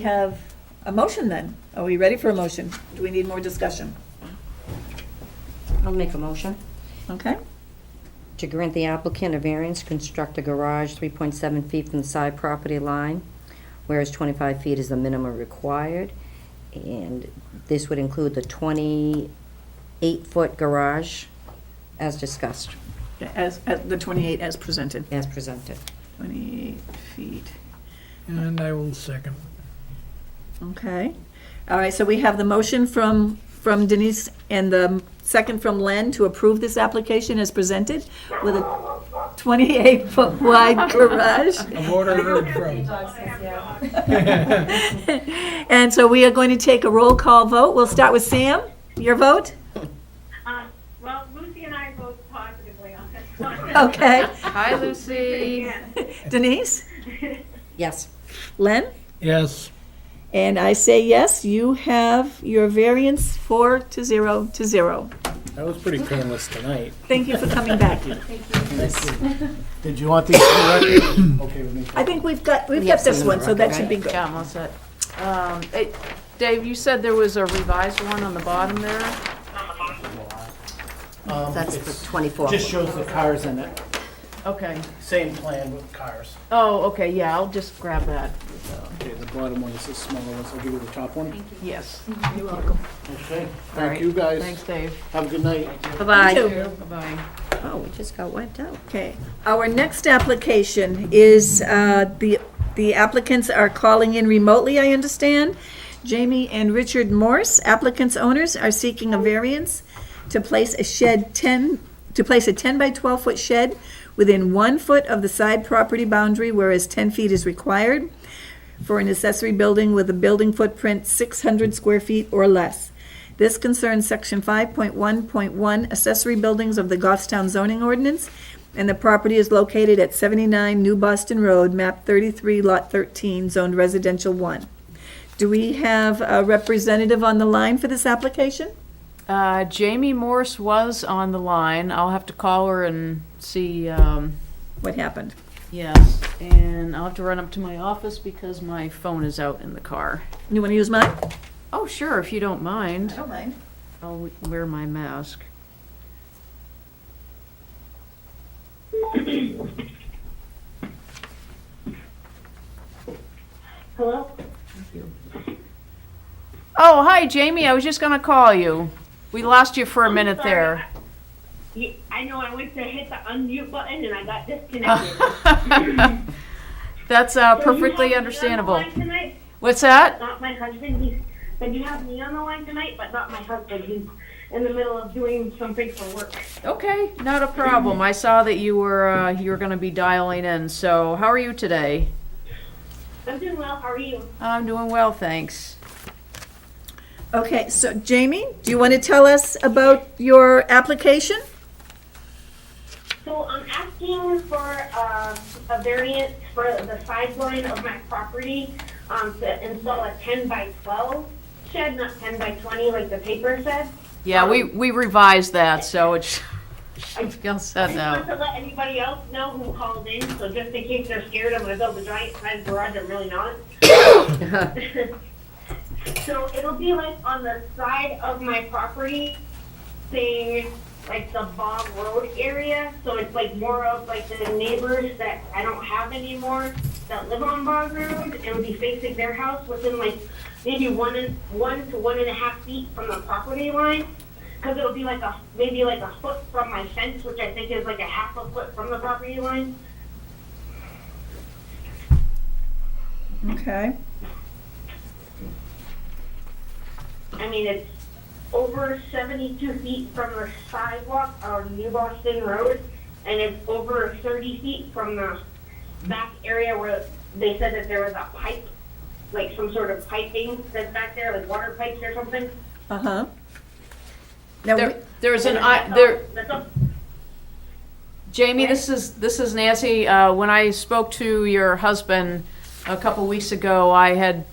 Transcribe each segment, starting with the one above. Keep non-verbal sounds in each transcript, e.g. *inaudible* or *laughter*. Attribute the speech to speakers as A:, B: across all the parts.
A: have a motion then. Are we ready for a motion? Do we need more discussion?
B: I'll make a motion
A: Okay,
B: to grant the applicant a variance to construct a garage 3.7 feet from the side property line, whereas 25 feet is the minimum required. And this would include the 28-foot garage as discussed,
A: as, as the 28 as presented,
B: as presented.
A: 28 feet,
C: And I will second.
A: okay. All right, so we have the motion from, from Denise and the second from Len to approve this application as presented with a 28-foot *laughs* wide garage.
C: A voter heard from.
A: And so we are going to take a roll call vote. We'll start with Sam. Your vote?
D: Um, Well, Lucy and I vote positively on this one.
A: *laughs* Okay.
E: Hi, Lucy.
A: Denise?
B: Yes.
A: Len?
C: Yes,
A: And I say yes, you have your variance four to zero to zero.
F: That was pretty painless tonight.
A: Thank you for coming back.
F: Did you want these for the record? Okay with me.
A: I think we've got, we've got this one, so that should be good.
E: Yeah, I'm all set. Um, it- Dave, you said there was a revised one on the bottom there?
F: Um,
B: That's
F: it's-
B: for 24.
F: Just shows the cars in it.
E: Okay.
F: Same plan with cars.
E: Oh, okay, yeah, I'll just grab that.
F: Okay, the bottom one is the smaller one, so I'll give you the top one.
E: Yes.
F: Okay,
E: All right.
F: thank you guys.
E: Thanks, Dave.
F: Have a good night.
B: Bye-bye.
E: Bye-bye.
B: Oh, we just got wiped out.
A: Okay, our next application is, uh, the, the applicants are calling in remotely, I understand. Jamie and Richard Morse, applicants' owners, are seeking a variance to place a shed ten, to place a ten by twelve foot shed within one foot of the side property boundary, whereas ten feet is required for an accessory building with a building footprint six hundred square feet or less. This concerns section five point one point one accessory buildings of the Goffstown zoning ordinance, and the property is located at seventy-nine New Boston Road, map thirty-three, lot thirteen, zoned residential one. Do we have a representative on the line for this application?
E: Uh, Jamie Morse was on the line. I'll have to call her and see, um,
A: What happened?
E: yes. And I'll have to run up to my office because my phone is out in the car.
A: You wanna use mine?
E: Oh, sure, if you don't mind.
A: don't mind.
E: I'll wear my mask.
D: Hello?
E: Oh, hi, Jamie. I was just gonna call you. We lost you for a minute there. *laughs*
D: Yeah, I know, I went to hit the unmute button and I got disconnected.
E: That's
D: So you have me on
E: uh, *laughs* perfectly
D: the
E: understandable.
D: line tonight?
E: What's that?
D: Not my husband, he's, but you have me on the line tonight, but not my husband, he's in the middle of doing something for work.
E: Okay, not a problem. I saw that you were uh, you were gonna be dialing in. So, how are you today?
D: I'm doing well, how are you?
E: I'm doing well, thanks.
A: Okay, so Jamie, do you wanna tell us about your application?
D: So I'm asking for uh, a variance for the sideline of my property um, to install a 10 by 12 shed, not 10 by 20 like the paper said.
E: Yeah, we we revised that, so it's *laughs* Gail
D: I
E: said
D: just want
E: *laughs* no.
D: to let anybody else know who called in, so just in case they're scared, I'm gonna build a giant red garage, I'm really not. So it'll be like on the side of my property, saying, like the Bob Road area, so it's like more of like the neighbors that I don't have anymore that live on Bob Road, it'll be facing their house within like maybe one and, one to one and a half feet from the property line. Because it'll be like a maybe like a foot from my fence, which I think is like a half a foot from the property line.
A: Okay.
D: I mean, it's over 72 feet from the sidewalk on New Boston Road, and it's over 30 feet from the back area where they said that there was a pipe, like some sort of piping that's back there, like water pipes or something.
A: Uh-huh. Now, we-
E: There, there's an I,
D: That's all-
E: there.
D: That's all.
E: Jamie, this is, this is Nancy. Uh, When I spoke to your husband a couple weeks ago, I had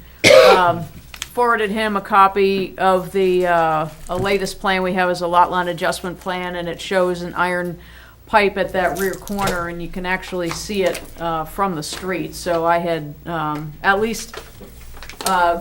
E: um, forwarded him a copy of the, uh, a latest plan we have is a lot line adjustment plan, and it shows an iron pipe at that rear corner, and you can actually see it uh, from the street. So I had um, at least uh,